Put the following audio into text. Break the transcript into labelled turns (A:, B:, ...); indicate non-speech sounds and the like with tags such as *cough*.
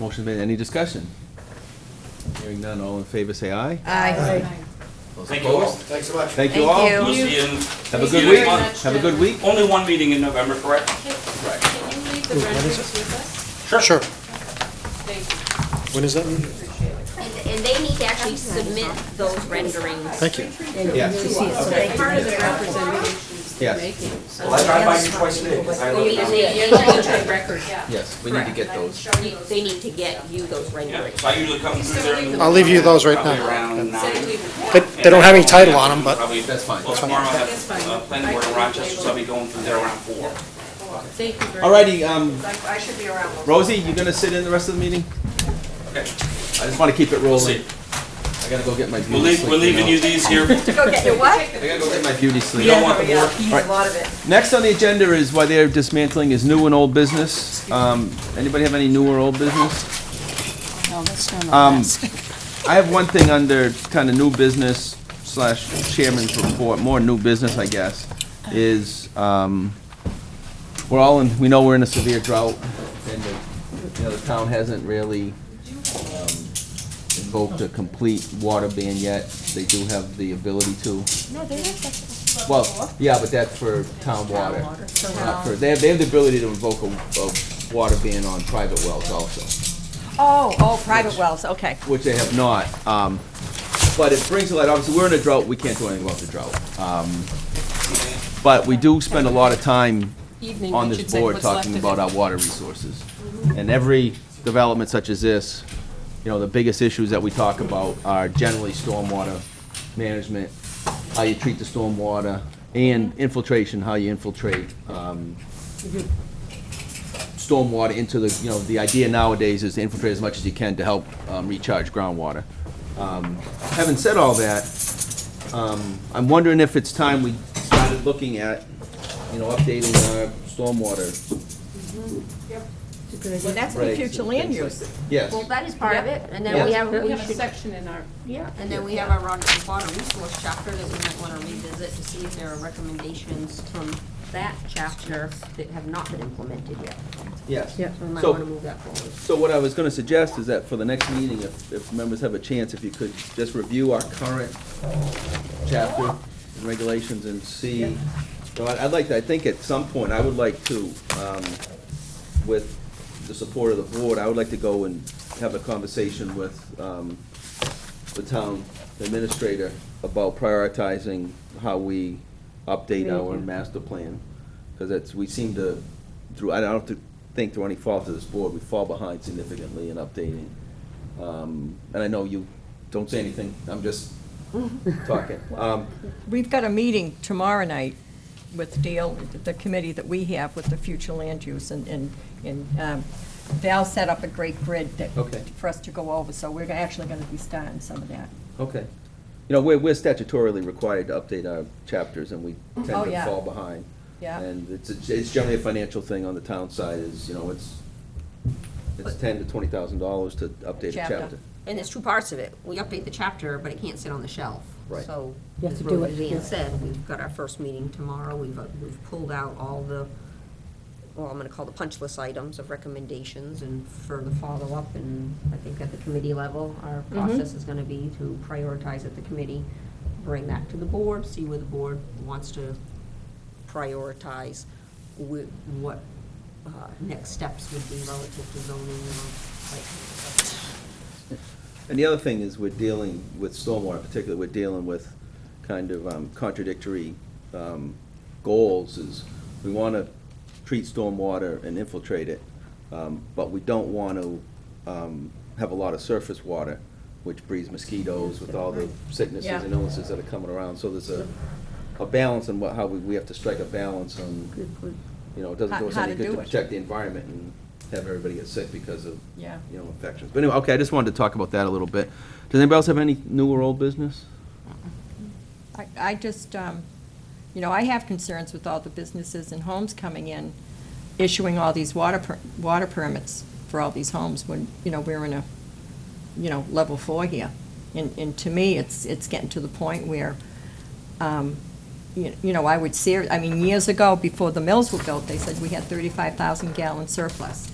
A: Motion made, any discussion? Hearing none, all in favor, say aye.
B: Aye.
A: Those
C: Thank you all.
A: opposed?
D: Thanks so much.
A: Thank you
B: Thank
A: all.
B: you.
C: We'll see you in-
A: Have a
C: see
A: good
C: you
A: week,
C: next month.
A: have a good week.
C: Only one meeting in November, correct?
E: Can can you leave the renderings with us?
D: Sure.
E: Thank you.
D: When is that?
F: And and they need to actually submit those renderings.
D: Thank you.
C: Okay.
E: Part of the representation
A: Yes.
E: you're making. so-
C: Well, I drive by you twice a day, 'cause I
F: We-
C: live
F: they-
C: down
F: they
C: here.
F: need to-
E: Record, yeah.
A: Yes, we need to get those.
F: you- They need to get you those
C: Yeah,
F: renderings.
C: so I usually come through there. in the-
D: I'll leave you those right
C: probably
D: now.
C: around nine.
E: Say leave it.
D: They, they don't have any title on them, but
C: Probably-
A: That's fine.
C: Well, tomorrow I
E: That's
C: have
E: fine.
C: a planning board in Rochester, so I'll be going through there around four.
E: Thank you very much.
A: Alrighty, um,
E: I I should be around.
A: Rosie, you gonna sit in the rest of the meeting?
C: Okay,
A: I just wanna keep it
C: we'll
A: rolling.
C: see.
A: I gotta go get my beauty
C: We're
A: sleep.
C: leaving, we're leaving you
A: know.
C: these here. You
B: Go get your
F: *laughs*
B: what?
A: I gotta go get my beauty sleep.
C: don't want the board.
B: A lot of it.
A: Next on the agenda is why they're dismantling is new and old business. Um, anybody have any new or old business?
G: No, that's not
A: Um,
G: on this.
A: I have one thing under kind of new business slash chairman's report, more new business, I guess, is, um, we're all in, we know we're in a severe drought and the, you know, the town hasn't really, um, invoked a complete water ban yet. They do have the ability to.
G: No, they have that.
A: Well, yeah, but that's for town water. Not for- They have, they have the ability to invoke a, a water ban on private wells also,
B: Oh, oh, private wells, okay.
A: which they have not. Um, but it brings to light, obviously, we're in a drought, we can't do anything about the drought. Um, but we do spend a lot of time
E: Evening,
A: on
E: we
A: this
E: should say
A: board
E: what's left
A: talking
E: of
A: about
E: it.
A: our water resources. And every development such as this, you know, the biggest issues that we talk about are generally stormwater management, how you treat the stormwater, and infiltration, how you infiltrate, um, stormwater into the, you know, the idea nowadays is to infiltrate as much as you can to help, um, recharge groundwater. Um, having said all that, um, I'm wondering if it's time we started looking at, you know, updating our stormwater.
B: Well, that's for
A: regs
B: future
A: and
B: land
A: things like
B: use.
A: that. Yes,
F: Well, that is part of it, and then we
A: Yeah.
F: have,
E: We
F: we
E: have a
F: should,
E: section in our,
F: yeah, and then we have our water water resource chapter that we might wanna revisit to see if there are recommendations from that chapter that have not been implemented yet.
A: yes.
F: So we might wanna
A: So,
F: move that forward.
A: so what I was gonna suggest is that for the next meeting, if, if members have a chance, if you could just review our current chapter and regulations and see. So I'd, I'd like, to- I think at some point, I would like to, um, with the support of the board, I would like to go and have a conversation with, um, the town administrator about prioritizing how we update our master plan. Because it's, we seem to, through, I don't th- think through any fault of this board, we fall behind significantly in updating. Um, And I know you don't say anything, I'm just talking. Um,
B: We've got a meeting tomorrow night with Dale, the committee that we have with the future land use, and, and and um, Val set up a great grid that,
A: Okay.
B: for us to go over, so we're actually gonna be starting some of that.
A: Okay. You know, we're, we're statutorily required to update our chapters, and we
B: Oh,
A: tend to
B: yeah.
A: fall behind.
B: Yeah.
A: And it's, it's generally a financial thing on the town side, is, you know, it's, it's
F: But-
A: ten to twenty thousand dollars to update a
B: Chapter.
A: chapter.
F: And there's two parts of it. We update the chapter, but it can't sit on the shelf.
A: Right.
F: So, as Roseanne said, we've got our first meeting tomorrow. We've, uh, we've pulled out all the, well, I'm gonna call the punch list items of recommendations and further follow-up. And I think at the committee level, our process is gonna be to prioritize at the committee, bring that to the board, see where the board wants to prioritize with what uh, next steps would be relative to zoning or like.
A: And the other thing is, we're dealing with stormwater in particular, we're dealing with kind of um, contradictory um, goals, is we want to treat stormwater and infiltrate it, um, but we don't want to have a lot of surface water, which breeds mosquitoes with all the sicknesses and
B: Yeah.
A: illnesses that are coming around, so there's a, a balance on what, how we, we have to strike a balance on,
F: Good point.
A: you know, it doesn't do us
B: How- how
A: any
B: to
A: good to
B: do it.
A: protect the environment and have everybody get sick because of
B: Yeah.
A: you know, infections. But anyway, okay, I just wanted to talk about that a little bit. Does anybody else have any new or old business?
B: I, I just, um, you know, I have concerns with all the businesses and homes coming in, issuing all these water, per- water permits for all these homes when, you know, we're in a, you know, level four here. And, and to me, it's, it's getting to the point where, um, you you know, I would see, I mean, years ago, before the mills were built, they said we had 35,000 gallon surplus.